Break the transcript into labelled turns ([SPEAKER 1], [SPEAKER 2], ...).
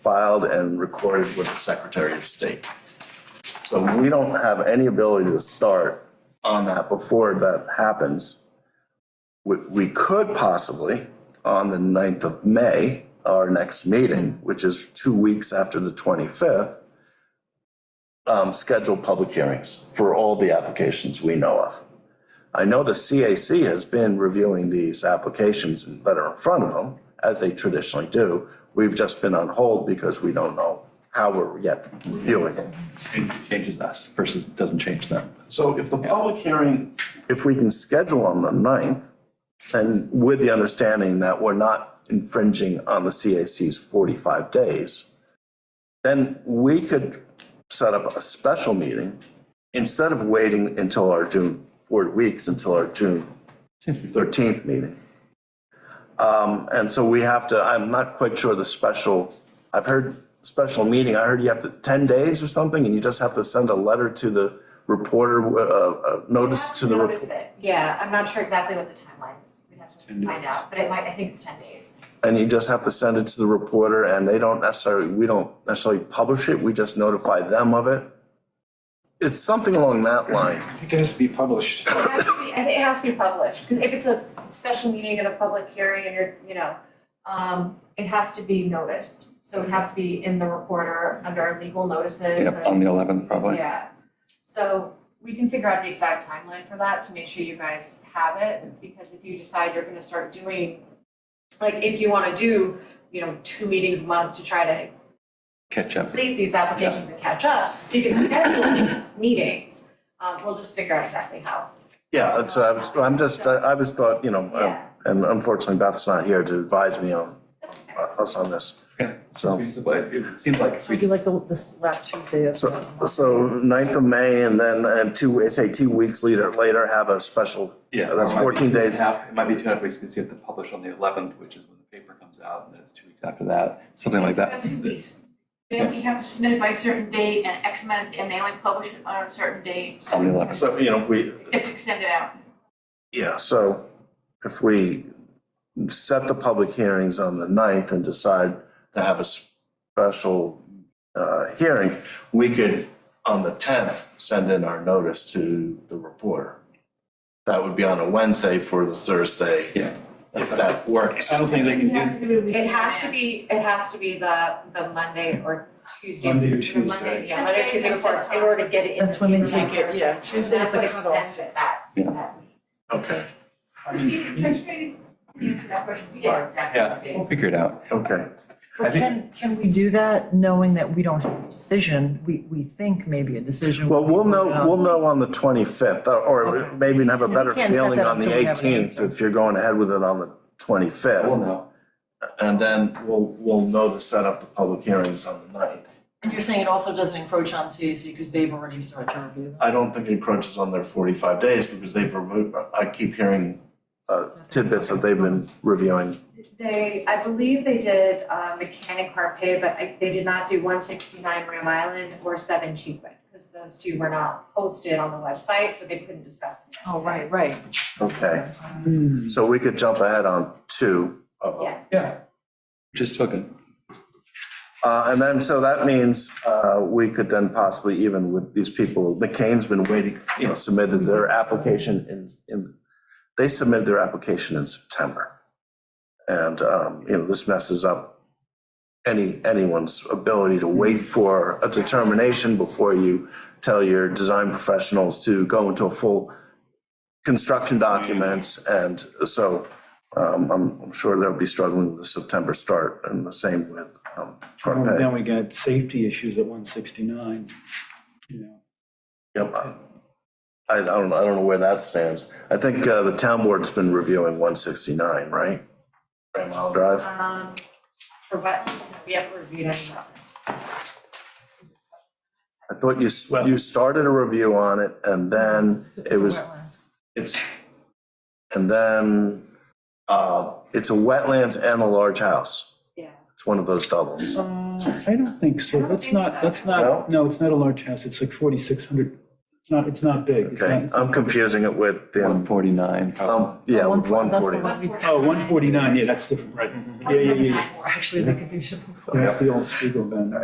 [SPEAKER 1] filed and recorded with the Secretary of State. So we don't have any ability to start on that before that happens. We, we could possibly, on the 9th of May, our next meeting, which is two weeks after the 25th, um, schedule public hearings for all the applications we know of. I know the CAC has been reviewing these applications that are in front of them, as they traditionally do. We've just been on hold because we don't know how we're yet reviewing it.
[SPEAKER 2] Change- Changes us versus doesn't change them.
[SPEAKER 1] So if the public hearing, if we can schedule on the 9th, and with the understanding that we're not infringing on the CAC's 45 days, then we could set up a special meeting instead of waiting until our June, four weeks until our June 13th meeting. Um, And so we have to, I'm not quite sure the special, I've heard special meeting, I heard you have to, 10 days or something, and you just have to send a letter to the reporter, uh, uh, notice to the. rep-
[SPEAKER 3] Notice it, yeah, I'm not sure exactly what the timeline is, we'd have to find out, but it might, I think it's ten days.
[SPEAKER 1] And you just have to send it to the reporter and they don't necessarily, we don't necessarily publish it, we just notify them of it. It's something along that line.
[SPEAKER 4] I think it has to be published.
[SPEAKER 3] It has to be, I think it has to be published, because if it's a special meeting and a public hearing and you're, you know, um, it has to be noticed, so it'd have to be in the reporter under our legal notices
[SPEAKER 2] Yep, on the eleventh probably.
[SPEAKER 3] Yeah, so we can figure out the exact timeline for that to make sure you guys have it, because if you decide you're gonna start doing, like, if you wanna do, you know, two meetings a month to try to
[SPEAKER 2] Catch up.
[SPEAKER 3] complete these applications and catch up, you can schedule meetings. Um, we'll just figure out exactly how.
[SPEAKER 1] Yeah, and so I was, I'm just, I was thought, you know, um,
[SPEAKER 3] Yeah.
[SPEAKER 1] and unfortunately Beth's not here to advise me on,
[SPEAKER 3] That's okay.
[SPEAKER 1] us on this.
[SPEAKER 2] Okay.
[SPEAKER 1] So,
[SPEAKER 2] But it seems like
[SPEAKER 5] It'd be like the, this last Tuesday of.
[SPEAKER 1] so, so 9th of May and then uh, two, say two weeks later, later have a special,
[SPEAKER 2] Yeah.
[SPEAKER 1] that's
[SPEAKER 2] it might be
[SPEAKER 1] 14
[SPEAKER 2] two and a
[SPEAKER 1] days.
[SPEAKER 2] half- It might be two and a half weeks because you have to publish on the eleventh, which is when the paper comes out, and then it's two weeks after that, something like that.
[SPEAKER 6] It's about two weeks. Then we have to submit it by a certain date and X amount, and they only publish it on a certain date.
[SPEAKER 2] On the eleventh.
[SPEAKER 1] So, you know, if we,
[SPEAKER 6] It's extended out.
[SPEAKER 1] Yeah, so if we set the public hearings on the 9th and decide to have a special uh, hearing, we could, on the 10th, send in our notice to the reporter. That would be on a Wednesday for the Thursday,
[SPEAKER 2] Yeah.
[SPEAKER 1] if that works.
[SPEAKER 4] I don't think they can do,
[SPEAKER 3] It has to be, it has to be the, the Monday or Tuesday.
[SPEAKER 4] Monday or
[SPEAKER 3] the
[SPEAKER 4] Tuesday.
[SPEAKER 3] Monday, yeah, Monday, or Tuesday before, in order to get it in.
[SPEAKER 5] That's when they
[SPEAKER 3] the paper
[SPEAKER 5] take it,
[SPEAKER 3] by
[SPEAKER 5] yeah,
[SPEAKER 3] Thursday.
[SPEAKER 5] Tuesday's the
[SPEAKER 3] That's what
[SPEAKER 5] cutoff.
[SPEAKER 3] extends it that,
[SPEAKER 2] Yeah.
[SPEAKER 3] that week.
[SPEAKER 1] Okay,
[SPEAKER 4] I
[SPEAKER 6] Can you-
[SPEAKER 4] mean,
[SPEAKER 6] can you answer that question?
[SPEAKER 3] Yeah, exactly.
[SPEAKER 2] Yeah, we'll figure it out.
[SPEAKER 1] okay.
[SPEAKER 2] I
[SPEAKER 5] But
[SPEAKER 2] think-
[SPEAKER 5] can, can we do that knowing that we don't have a decision? We, we think maybe a decision.
[SPEAKER 1] Well, we'll know,
[SPEAKER 5] would be-
[SPEAKER 1] we'll know on the 25th, or- or maybe have a better
[SPEAKER 5] We can't set
[SPEAKER 1] feeling
[SPEAKER 5] that
[SPEAKER 1] on the
[SPEAKER 5] until we have an
[SPEAKER 1] 18th
[SPEAKER 5] answer.
[SPEAKER 1] if you're going ahead with it on the 25th.
[SPEAKER 2] We'll know.
[SPEAKER 1] And then we'll, we'll know to set up the public hearings on the 9th.
[SPEAKER 5] And you're saying it also doesn't encroach on CAC because they've already started to review them?
[SPEAKER 1] I don't think it crunches on their 45 days because they've removed, I keep hearing uh, tidbits that they've been reviewing.
[SPEAKER 3] They, I believe they did uh, Mechanic Harpay, but I- they did not do one sixty-nine Ram Island or seven Cheapwood, because those two were not posted on the website, so they couldn't discuss them.
[SPEAKER 5] Oh, right, right.
[SPEAKER 1] Okay, so we could jump ahead on two of them.
[SPEAKER 3] Yeah.
[SPEAKER 2] Yeah. Just took it.
[SPEAKER 1] Uh, And then, so that means uh, we could then possibly even with these people, McCain's been waiting, you know, submitted their application in, in, they submitted their application in September. And, um, you know, this messes up any, anyone's ability to wait for a determination before you tell your design professionals to go into a full construction documents. And so um, I'm, I'm sure they'll be struggling with the September start and the same with um, Carpe.
[SPEAKER 4] then we got safety issues at one sixty-nine, you know.
[SPEAKER 1] Yep. I I don't, I don't know where that stands. I think uh, the town board's been reviewing 169, right? Grand Mile Drive.
[SPEAKER 3] Um, for wetlands, we haven't reviewed any wetlands.
[SPEAKER 1] I thought you, s- you started a review on it and then
[SPEAKER 5] It's a- it's
[SPEAKER 1] it
[SPEAKER 5] a
[SPEAKER 1] was,
[SPEAKER 5] wetlands.
[SPEAKER 1] it's, and then uh, it's a wetlands and a large house.
[SPEAKER 3] Yeah.
[SPEAKER 1] It's one of those doubles.
[SPEAKER 4] Uh, I don't think so,
[SPEAKER 3] I don't
[SPEAKER 4] that's
[SPEAKER 3] think
[SPEAKER 4] not,
[SPEAKER 3] so.
[SPEAKER 4] that's not, no, it's not a large house, it's like forty-six hundred It's not, it's not big. It's not-
[SPEAKER 1] Okay,
[SPEAKER 4] it's
[SPEAKER 1] I'm
[SPEAKER 4] not-
[SPEAKER 1] confusing it with
[SPEAKER 2] One
[SPEAKER 1] the,
[SPEAKER 2] forty-nine, probably.
[SPEAKER 1] um, yeah,
[SPEAKER 5] Oh,
[SPEAKER 1] with
[SPEAKER 5] one-
[SPEAKER 1] one
[SPEAKER 5] that's the
[SPEAKER 1] forty.
[SPEAKER 5] one.
[SPEAKER 4] Oh, 149, yeah, that's different, right. Yeah, yeah, yeah.
[SPEAKER 5] Actually, the confusion.
[SPEAKER 4] That's the old Spiegel bend.